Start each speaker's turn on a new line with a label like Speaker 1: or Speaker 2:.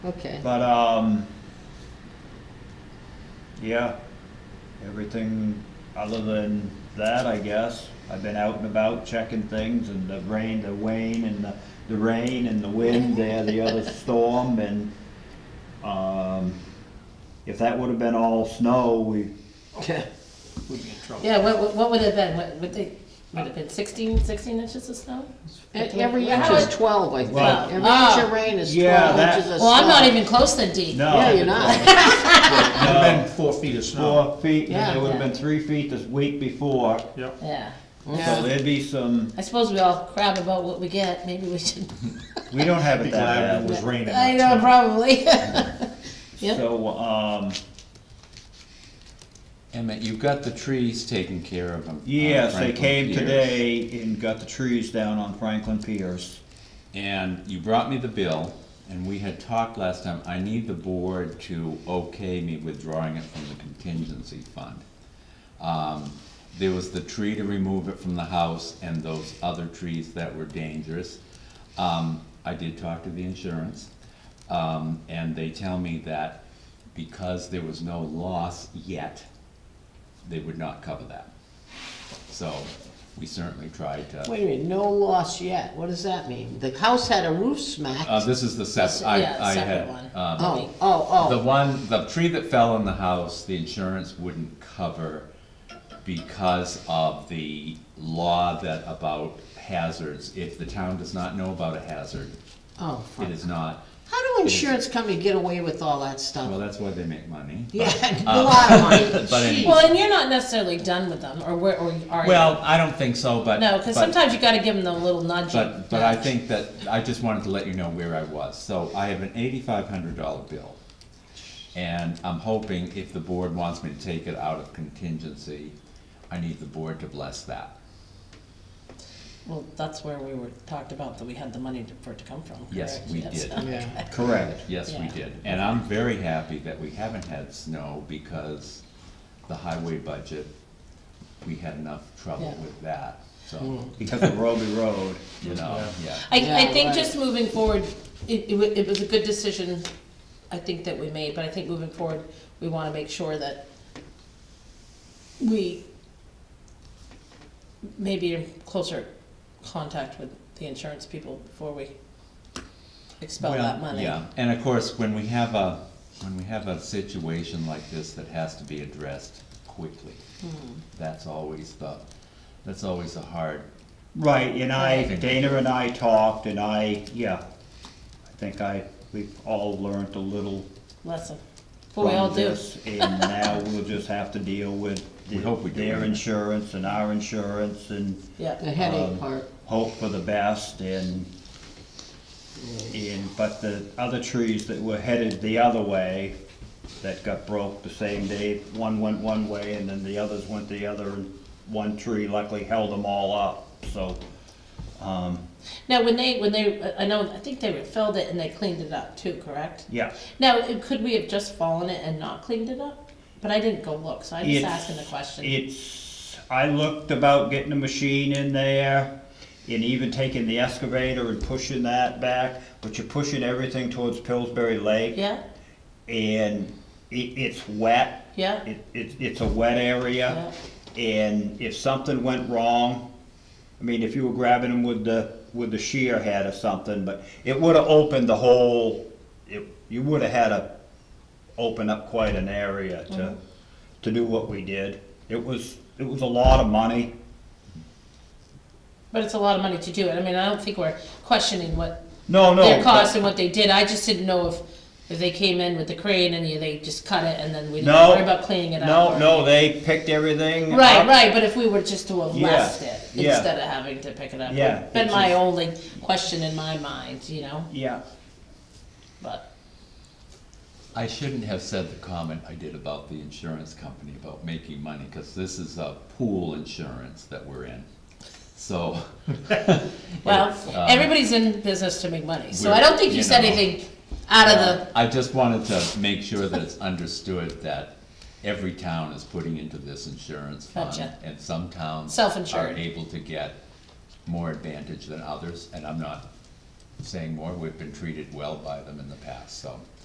Speaker 1: Okay,
Speaker 2: But, um, yeah, everything other than that, I guess. I've been out and about checking things and the rain, the wane and the, the rain and the wind there, the other storm and, um, if that would've been all snow, we,
Speaker 3: We'd be in trouble.
Speaker 1: yeah, what, what- what would it have been, what, would they, would it have been 16 16 inches of snow?
Speaker 4: E- Every
Speaker 1: Yeah,
Speaker 4: inch
Speaker 1: how
Speaker 4: is
Speaker 1: it-
Speaker 4: twelve, I think.
Speaker 2: Well-
Speaker 4: Every inch
Speaker 1: Oh.
Speaker 4: of rain is
Speaker 2: Yeah,
Speaker 4: twelve
Speaker 2: that-
Speaker 4: inches of snow.
Speaker 1: Well, I'm not even close to deep.
Speaker 2: no.
Speaker 4: Yeah, you're not.
Speaker 3: Would've been four feet of snow.
Speaker 2: Four feet, and
Speaker 4: Yeah.
Speaker 2: there would've been three feet this week before,
Speaker 3: Yep.
Speaker 1: Yeah,
Speaker 2: so
Speaker 4: Yeah.
Speaker 2: there'd be some,
Speaker 1: I suppose we all crab about what we get, maybe we should.
Speaker 2: we don't have
Speaker 3: Be
Speaker 2: it
Speaker 3: glad
Speaker 2: that
Speaker 3: it
Speaker 2: bad.
Speaker 3: was raining.
Speaker 1: I know,
Speaker 3: not snowing.
Speaker 1: probably. Yep.
Speaker 2: So, um,
Speaker 5: Emmett, you've got the trees taken care of. on- on
Speaker 2: Yes, they
Speaker 5: Uh, Franklin
Speaker 2: came
Speaker 5: Pierce.
Speaker 2: today and got the trees down on Franklin Pierce.
Speaker 5: And you brought me the bill, and we had talked last time, I need the board to okay me withdrawing it from the contingency fund. Um, there was the tree to remove it from the house and those other trees that were dangerous. Um, I did talk to the insurance, um, and they tell me that because there was no loss yet, they would not cover that. So, we certainly tried to.
Speaker 4: Wait a minute, no loss yet. What does that mean? The house had a roof smacked.
Speaker 5: Uh, this is the sep, I,
Speaker 1: Yeah,
Speaker 5: I
Speaker 1: separate
Speaker 5: had,
Speaker 1: one.
Speaker 5: um,
Speaker 4: Oh, oh,
Speaker 5: the
Speaker 4: oh.
Speaker 5: one, the tree that fell in the house, the insurance wouldn't cover because of the law that about hazards, if the town does not know about a hazard,
Speaker 4: Oh,
Speaker 5: it
Speaker 4: fuck.
Speaker 5: is not,
Speaker 4: How do insurance companies get away with all that
Speaker 5: well,
Speaker 4: stuff?
Speaker 5: that's why they make money. but-
Speaker 4: Yeah, a lot of money.
Speaker 5: But anyway,
Speaker 1: Well, and you're not necessarily done with them, or where, or are you?
Speaker 5: well, I don't think so, but.
Speaker 1: No, because
Speaker 5: but-
Speaker 1: sometimes you gotta give them the little nudge.
Speaker 5: But, but I
Speaker 1: nudge.
Speaker 5: think that, I just wanted to let you know where I was. So I have an eighty-five hundred dollar bill. And I'm hoping if the board wants me to take it out of contingency, I need the board to bless that.
Speaker 1: Well, that's where we were, talked about that we had the money to- for it to come from, correct?
Speaker 5: Yes, we did.
Speaker 4: Yeah.
Speaker 2: Correct.
Speaker 5: Yes, we
Speaker 1: Yeah.
Speaker 5: did. And I'm very happy that we haven't had snow because the highway budget, we had enough trouble
Speaker 1: Yeah.
Speaker 5: with that, so,
Speaker 2: Because of Roby Road.
Speaker 5: you know, yeah.
Speaker 1: I, I
Speaker 4: Yeah,
Speaker 1: think
Speaker 4: right.
Speaker 1: just moving forward, it, it wa- it was a good decision, I think that we made, but I think moving forward, we wanna make sure that we maybe in closer contact with the insurance people before we expel
Speaker 5: Well,
Speaker 1: that money.
Speaker 5: Yeah, and of course, when we have a, when we have a situation like this that has to be addressed quickly,
Speaker 1: Hmm.
Speaker 5: that's always the, that's always the hard,
Speaker 2: Right, and I,
Speaker 5: Right.
Speaker 2: Dana and I talked, and I, yeah, I think I, we've all learned a little
Speaker 1: Lesson, but we all
Speaker 2: from
Speaker 1: do,
Speaker 2: this. And now we'll just have to deal with
Speaker 5: We hope we do.
Speaker 2: their insurance and our insurance and
Speaker 4: The
Speaker 1: yeah,
Speaker 4: headache
Speaker 2: Um,
Speaker 4: part.
Speaker 2: hope for the best and, and, but the other trees that were headed the other way that got broke the same day, one went one way and then the others went the other, and one tree luckily held them all up, so, um,
Speaker 1: now, when they, when they, I- I know, I think they filled it and they cleaned it up too, correct?
Speaker 2: yeah.
Speaker 1: Now, it- could we have just fallen it and not cleaned it up? But I didn't go look, so I'm just
Speaker 2: It's-
Speaker 1: asking the question.
Speaker 2: It's, I looked about getting a machine in there and even taking the excavator and pushing that back, but you're pushing everything towards Pillsbury Lake.
Speaker 1: Yeah,
Speaker 2: And it, it's wet,
Speaker 1: yeah,
Speaker 2: it, it, it's a wet area, and if something went wrong, I mean, if you were grabbing them with the, with the shear head or something, but it would've opened the whole, it, you would've had to open up quite an area
Speaker 1: Mm-hmm.
Speaker 2: to, to do what we did. It was, it was a lot of money,
Speaker 1: but it's a lot of money to do it. I mean, I don't think we're questioning what
Speaker 2: no, no.
Speaker 1: their
Speaker 2: but-
Speaker 1: cost and what they did. I just didn't know if, if they came in with the crane and you- they just cut it and then we didn't
Speaker 2: No.
Speaker 1: worry about cleaning it up.
Speaker 2: No,
Speaker 1: or-
Speaker 2: no, they picked everything.
Speaker 1: Right,
Speaker 2: up.
Speaker 1: right, but if we were just to have
Speaker 2: Yeah,
Speaker 1: left it
Speaker 2: yeah.
Speaker 1: instead of having to pick it up,
Speaker 2: Yeah,
Speaker 1: would've been
Speaker 2: it's
Speaker 1: my
Speaker 2: just-
Speaker 1: only question in my mind, you know,
Speaker 2: Yeah,
Speaker 1: but,
Speaker 5: I shouldn't have said the comment I did about the insurance company about making money, cause this is a pool insurance that we're in. So,
Speaker 1: well,
Speaker 5: It's,
Speaker 2: uh,
Speaker 5: um,
Speaker 1: everybody's in business to make money, so I
Speaker 5: we're-
Speaker 1: don't think you
Speaker 5: you
Speaker 1: said
Speaker 5: know.
Speaker 1: anything out of the
Speaker 5: Uh, I just wanted to make sure that it's understood that every town is putting into this insurance fund.
Speaker 1: Gotcha.
Speaker 5: And some towns.
Speaker 1: Self-insured.
Speaker 5: Are able to get more advantage than others, and I'm not saying more, we've been treated well by them in the past, so.